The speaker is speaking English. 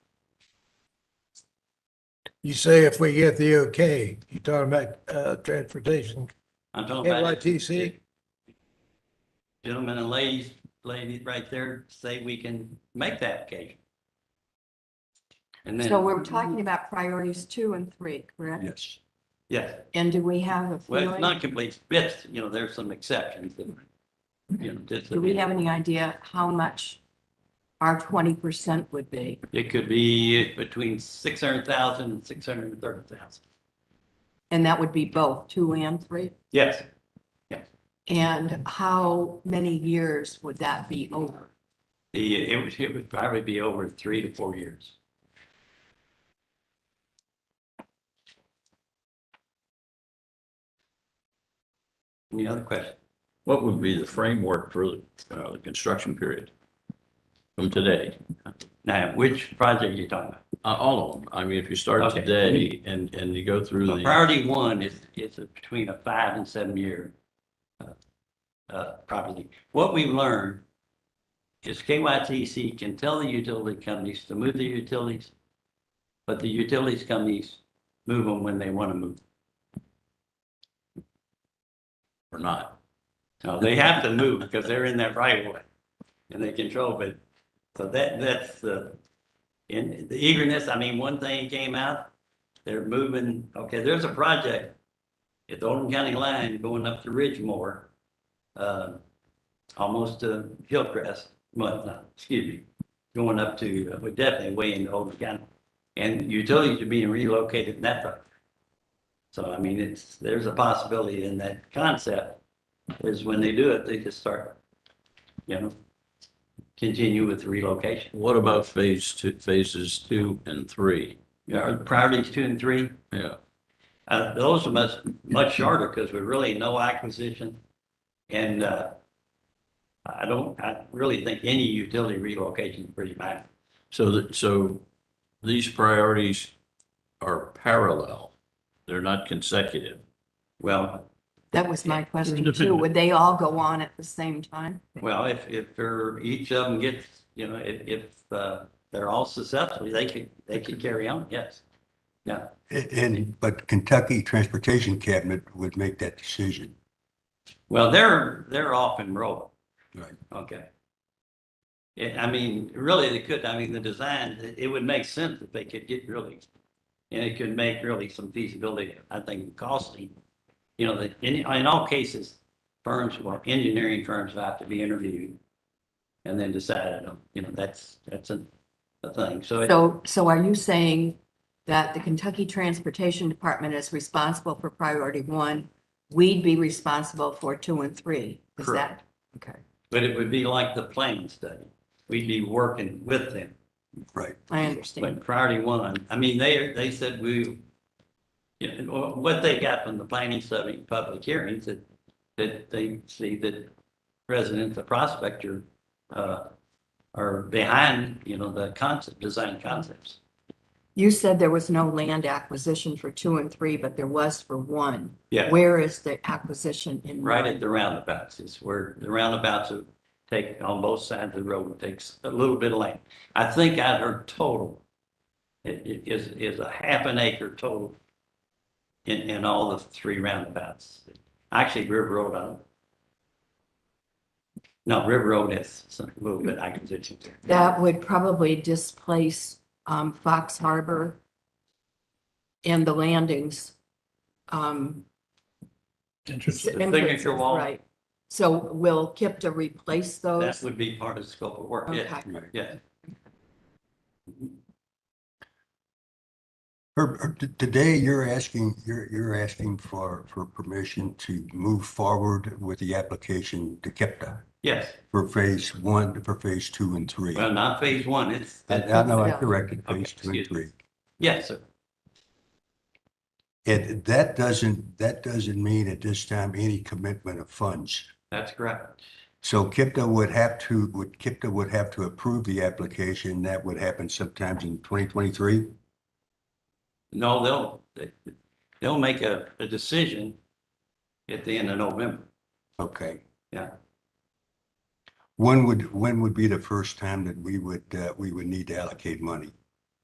You say if we get the okay, you talking about, uh, transportation, I'm talking about if- KYTC? gentlemen and ladies, ladies right there say we can make the application. And So then, we're talking about priorities two and three, correct? yes, yes, And do we have a well, it's feeling, not complete, yes, you know, there's some exceptions that, you know, just, do we have any idea how much our twenty percent would be? it could be between six hundred thousand and six hundred and thirty thousand. And that would be both two and three? Yes, And how many years would that be over? the, it would, it would probably be over three to four years. Any other questions? What would be the framework for uh, the construction period from today? Now, which project are you talking about? Uh, All of them. I mean, if you start Okay. today and, and you go through Well, the, Priority one is, is a- between a five and seven year uh, uh, property. What we've learned is KYTC can tell the utility companies to move the utilities, but the utilities companies move them when they want to move. or not. No, they have to move because they're in that right of way and they control it. So that, that's the, in the eagerness, I mean, one thing came out, they're moving, okay, there's a project at the Oldham County line going up to Ridgemore, uh, almost to Hillcrest, well, no, excuse me, going up to, we're definitely way into Oldham County. And utilities are being relocated in that project. So I mean, it's, there's a possibility in that concept is when they do it, they just start, you know, continue with the relocation. What about phase two, phases two and three? Our Priorities two and three, Yeah, uh, those are much, much shorter because we're really no acquisition. And, uh, I don't, I really think any utility relocation is pretty bad. so that, so these priorities are parallel. They're not consecutive. Well, That was my question too. Would they all go on at the same time? well, if, if they're- each of them gets, you know, if, if, uh, they're all successful, they could, they could carry on, yes. A- And, but Kentucky Transportation Cabinet would make that decision. Well, they're, they're off and rolling. Right. Okay. Yeah, I mean, really, they could, I mean, the design, it- it would make sense if they could get really, and it could make really some feasibility, I think, costly. You know, that in, in all cases, firms, well, engineering firms have to be interviewed and then decided, on. you know, that's, that's a, a thing. So it- So, so are you saying that the Kentucky Transportation Department is responsible for priority one? We'd be responsible for two and three? Is that? Correct. Okay, but it would be like the planning study. We'd be working with them. Right. I understand. But priority one, I mean, they, they said we, you know, what they got from the planning study and public hearings that, that they see that residents of Prospect are, uh, are behind, you know, the concept, design concepts. You said there was no land acquisition for two and three, but there was for one. Yeah. Where is the acquisition in? Right one? at the roundabouts is where the roundabouts will take on both sides of the road, takes a little bit of land. I think I heard total, it, it is, is a half an acre total in, in all the three roundabouts. Actually, River Road, I don't. No, River Road has some little bit acquisition there. That would probably displace um, Fox Harbor and the landings. um, The entrances, signature wall, Right. So will Kipta replace that those? would be part of the scope of work, yes, Okay. Right. yes. Herb, Herb, t- today you're asking, you're, you're asking for, for permission to move forward with the application to KEPTA Yes, for phase one, for phase two and three. well, not phase one, it's, I, I know I Yeah. corrected Okay, phase two and excuse me. three. yes, sir. And that doesn't, that doesn't mean at this time any commitment of funds. that's correct. So KIPTA would have to, would, KIPTA would have to approve the application. That would happen sometimes in 2023? No, they'll, they- they'll make a, a decision at the end of November. Okay. Yeah. When would, when would be the first time that we would, uh, we would need to allocate money?